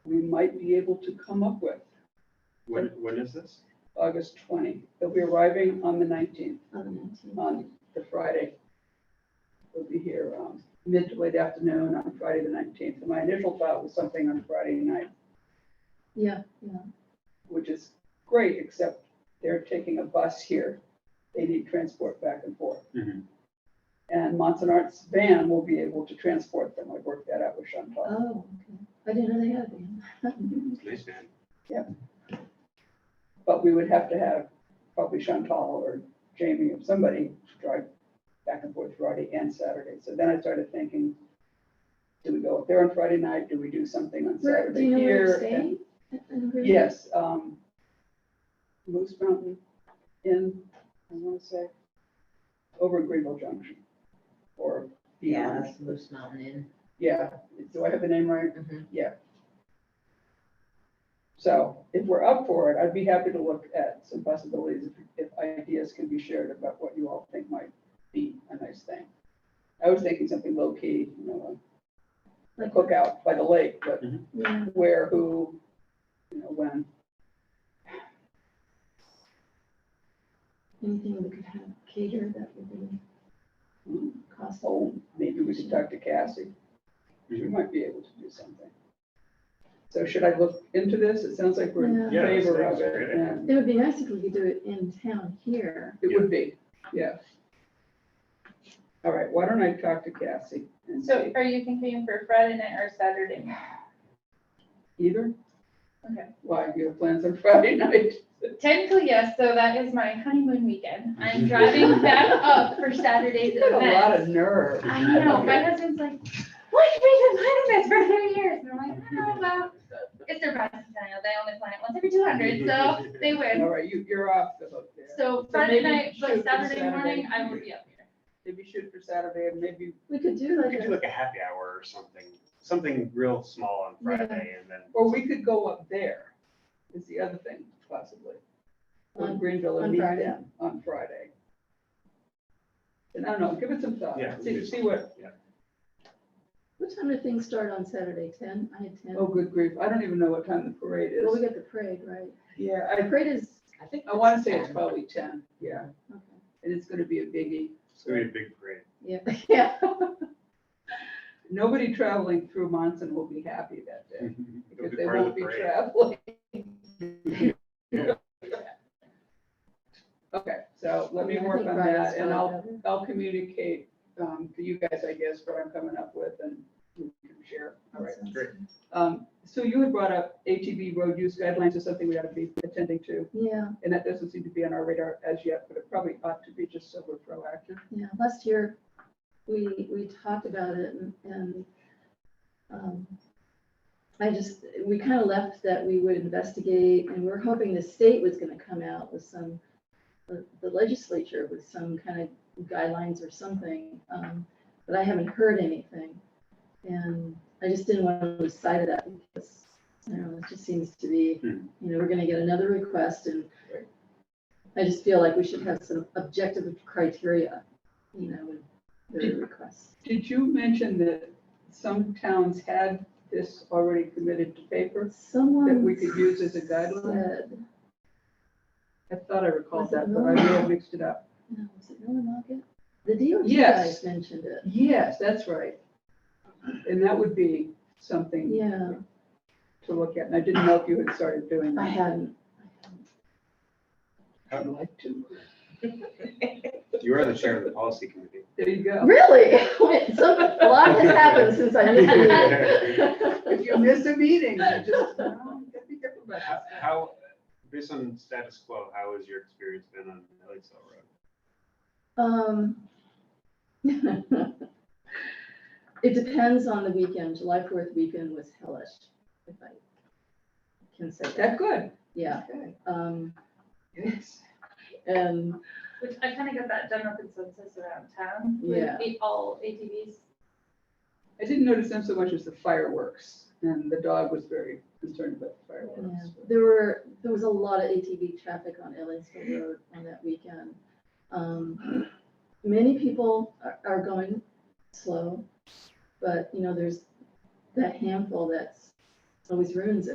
might be able to come up with, When, when is this? August 20. They'll be arriving on the 19th, on the nineteenth. on the Friday. They'll be here um, mid to late afternoon on Friday, the 19th. And my initial thought was something on Friday night, Yeah, yeah. which is great, except they're taking a bus here. They need transport back and forth. Mhm. And Monson Arts van will be able to transport them. I worked that out with Chantal. Oh, okay. I didn't know they had them. Nice, man. But we would have to have probably Chantal or Jamie or somebody drive back and forth Friday and Saturday. So then I started thinking, do we go up there on Friday night? Do we do something on Where, do Saturday you know where here? you're staying? And where- Yes, um, Moose Mountain Inn, I want to say, over at Greenville Junction. Or Yeah, beyond, that's Moose Mountain yeah, do I have the name right? Inn. So if we're up for it, I'd be happy to look at some possibilities if, if ideas can be shared about what you all think might be a nice thing. I was thinking something low key, you know, a Like, cookout by the lake, but yeah, where, who, you know, when. anything we could have catered that would be Hmm, costly. Oh, maybe we should talk to Cassie. She Mhm. might be able to do something. So should I look into this? It sounds like we're in Yeah. Yeah, that favor sounds of it. great. and It would be nice if we could do it in town here. It would be, yeah. All right, why don't I talk to Cassie? and see? So are you thinking for Friday night or Saturday? night? Either? Okay. Why, do you have plans on Friday night? Technically, yes, so that is my honeymoon weekend. I'm driving back up for Saturday's You got a lot of event. nerve. I know, my husband's like, why did we been planning this for three years? And I'm like, I don't know, well, it's their bicentennial, they only plan it once every two hundred, so they win. All right, you, you're off the hook there. So Friday maybe night, shoot but for Saturday Saturday. morning, I will be up here. Maybe shoot for Saturday and maybe, We could do We like could do a, like a happy hour or something, something real small on Friday and then. or we could go up there, is the other thing possibly. On On- Greenville and on meet Friday. them on Friday. And I don't know, give it some thought, Yeah, we see, do. see what, what time do things start on Saturday? Ten? I had ten. oh, good grief, I don't even know what time the parade Well, we is. got the parade, right? Yeah, The I, parade is, I think. I wanna say it's probably ten, yeah, okay, and it's gonna be a biggie. It's gonna be a big parade. yeah, yeah. Nobody traveling through Monson will be happy that day. It'll Because be they part of won't the be parade. traveling. Okay, so let me Yeah, I work think on Friday's that and fine, I'll, Heather. I'll communicate um, to you guys, I guess, what I'm coming up with and we can share. All right. Sounds great. good. Um, So you had brought up ATV road use guidelines is something we ought to be attending to. Yeah, And that doesn't seem to be on our radar as yet, but it probably ought to be just so we're proactive. yeah. Last year, we, we talked about it and- and, um, I just, we kind of left that we would investigate and we're hoping the state was gonna come out with some, the the legislature with some kind of guidelines or something, um, but I haven't heard anything. And I just didn't want to lose sight of that because, you know, it just seems to be, Hmm. you know, we're gonna get another request and Right. I just feel like we should have some objective criteria, you know, with the requests. Did you mention that some towns had this already committed to paper? Someone. That we could use as a guideline? said- I thought I recalled Was it that, but I may have mixed it up. No, was it Millinocket? The DOT Yes. guys mentioned it. Yes, that's right. And that would be something Yeah, to look at, and I didn't know if you had started doing I that. hadn't. I'd like to. You are the chair of the policy committee. There you go. Really? Wait, so a lot has happened since I missed it. If you miss a meeting, you just, oh, you gotta be careful about How- that. How, based on status quo, how has your experience been on Lakeside Road? Um. It depends on the weekend. July fourth weekend was hellish, if I can say that. That good? Yeah, Okay. um, Yes. and Which I kind of got that general consensus around town, with Yeah. the- all ATVs. I didn't notice them so much as the fireworks, and the dog was very concerned about the Yeah, fireworks. there were, there was a lot of ATV traffic on Ellisville Road on that weekend. Um, Many people are, are going slow, but, you know, there's that handful that's always ruins it.